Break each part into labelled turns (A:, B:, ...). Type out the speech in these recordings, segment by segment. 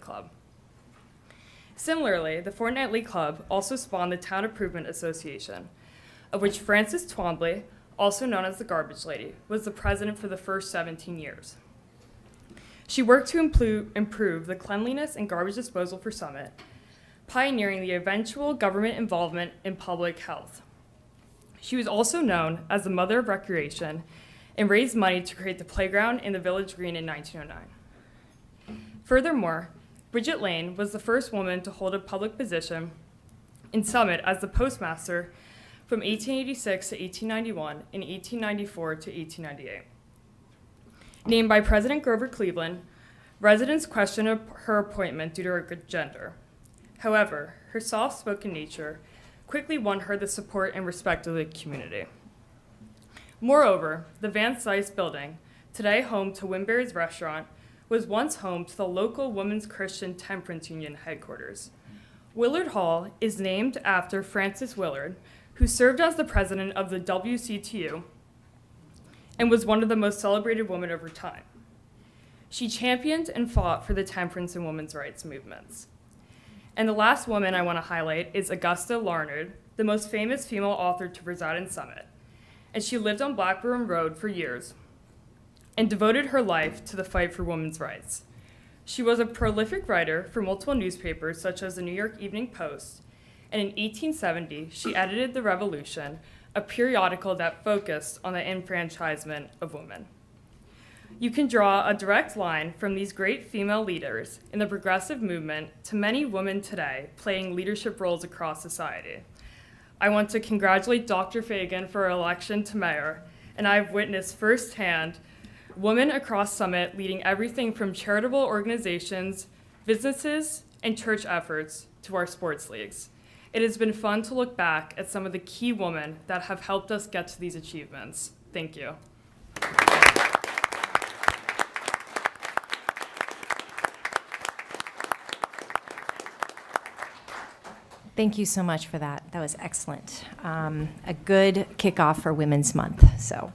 A: Club. Similarly, the Fortnightly Club also spawned the Town Improvement Association, of which Frances Twombly, also known as the Garbage Lady, was the president for the first 17 years. She worked to implu- improve the cleanliness and garbage disposal for Summit, pioneering the eventual government involvement in public health. She was also known as the Mother of Recreation and raised money to create the playground in the Village Green in 1909. Furthermore, Bridget Lane was the first woman to hold a public position in Summit as the postmaster from 1886 to 1891 and 1894 to 1898. Named by President Grover Cleveland, residents questioned her- her appointment due to her good gender. However, her soft spoken nature quickly won her the support and respect of the community. Moreover, the Van Sice building, today home to Winberry's restaurant, was once home to the local Women's Christian Temperance Union headquarters. Willard Hall is named after Frances Willard, who served as the president of the WCTU and was one of the most celebrated women of her time. She championed and fought for the temperance and women's rights movements. And the last woman I want to highlight is Augusta Larned, the most famous female author to reside in Summit. And she lived on Blackburn Road for years and devoted her life to the fight for women's rights. She was a prolific writer for multiple newspapers, such as the New York Evening Post, and in 1870, she edited The Revolution, a periodical that focused on the enfranchisement of women. You can draw a direct line from these great female leaders in the progressive movement to many women today playing leadership roles across society. I want to congratulate Dr. Fagan for her election to mayor, and I've witnessed firsthand women across Summit leading everything from charitable organizations, businesses, and church efforts to our sports leagues. It has been fun to look back at some of the key women that have helped us get to these achievements. Thank you.
B: Thank you so much for that. That was excellent. Um, a good kickoff for Women's Month. So,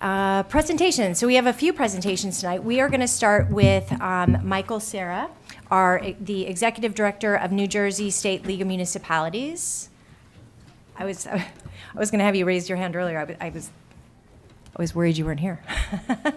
B: uh, presentations. So we have a few presentations tonight. We are going to start with um, Michael Sarah, our the executive director of New Jersey State League of Municipalities. I was I was going to have you raise your hand earlier. I was, I was I was worried you weren't here.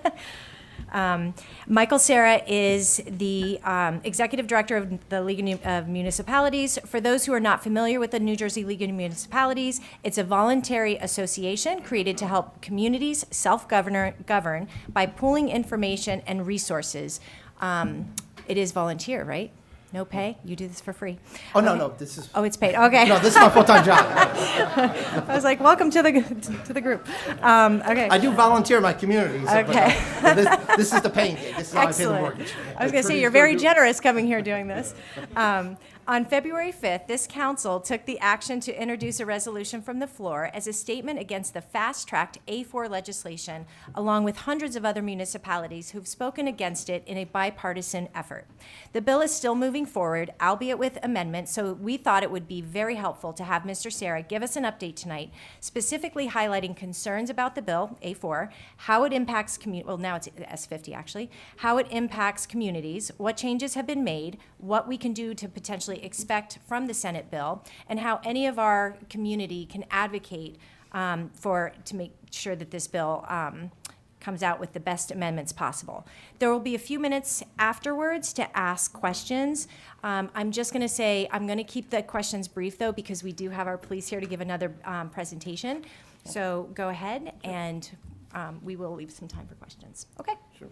B: Um, Michael Sarah is the um, executive director of the League of Mu- of Municipalities. For those who are not familiar with the New Jersey League of Municipalities, it's a voluntary association created to help communities self-govern govern by pooling information and resources. Um, it is volunteer, right? No pay. You do this for free.
C: Oh no, no, this is
B: Oh, it's paid. Okay.
C: no, this is my full-time job.
B: I was like, welcome to the to the group. Um, okay.
C: I do volunteer in my community. so- but,
B: Okay.
C: uh, but this, this is the paying gig. This is how I pay the
B: Excellent.
C: mortgage.
B: I was going to say, you're very generous coming here doing this. Um, On February 5th, this council took the action to introduce a resolution from the floor as a statement against the fast-tracked A4 legislation, along with hundreds of other municipalities who've spoken against it in a bipartisan effort. The bill is still moving forward, albeit with amendments, so we thought it would be very helpful to have Mr. Sarah give us an update tonight, specifically highlighting concerns about the bill, A4, how it impacts commu, well, now it's S50 actually, how it impacts communities, what changes have been made, what we can do to potentially expect from the Senate bill, and how any of our community can advocate um, for, to make sure that this bill um, comes out with the best amendments possible. There will be a few minutes afterwards to ask questions. Um, I'm just going to say, I'm going to keep the questions brief, though, because we do have our police here to give another um, presentation. So go ahead, and um, we will leave some time for questions. Okay?
C: Sure.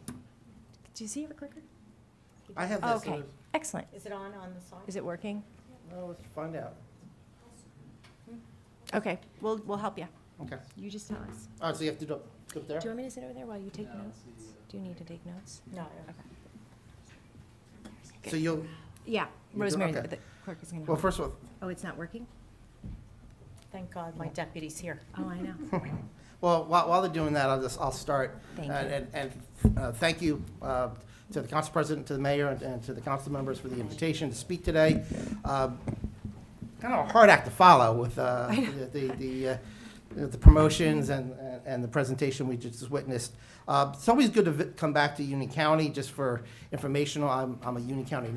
B: Do you see your clicker?
C: I have this. uh,
B: Okay, excellent.
D: Is it on, on the side?
B: Is it working?
C: Well, let's find out.
B: Okay, we'll, we'll help you.
C: Okay.
B: You just tell us.
C: All right, so you have to do go up there.
B: Do you want me to sit over there while you take notes? Do you need to take notes?
D: No. I don't.
C: So you'll.
B: Yeah,
C: You do?
B: Rosemary,
C: Okay.
B: but the clerk is going to
C: Well,
B: help.
C: first of all,
B: Oh, it's not working?
D: Thank God my deputy's here.
B: Oh, I know.
C: Well, while, while they're doing that, I'll just, I'll start.
B: Thank
C: And, and and, uh, thank you uh, to the council president, to the mayor, and- and to the council members for the invitation to speak today. Um, Kind of a hard act to follow with uh, the, the, uh, the promotions and, and the presentation we just witnessed. Uh, It's always good to vi- come back to Union County just for informational. I'm, I'm a Union County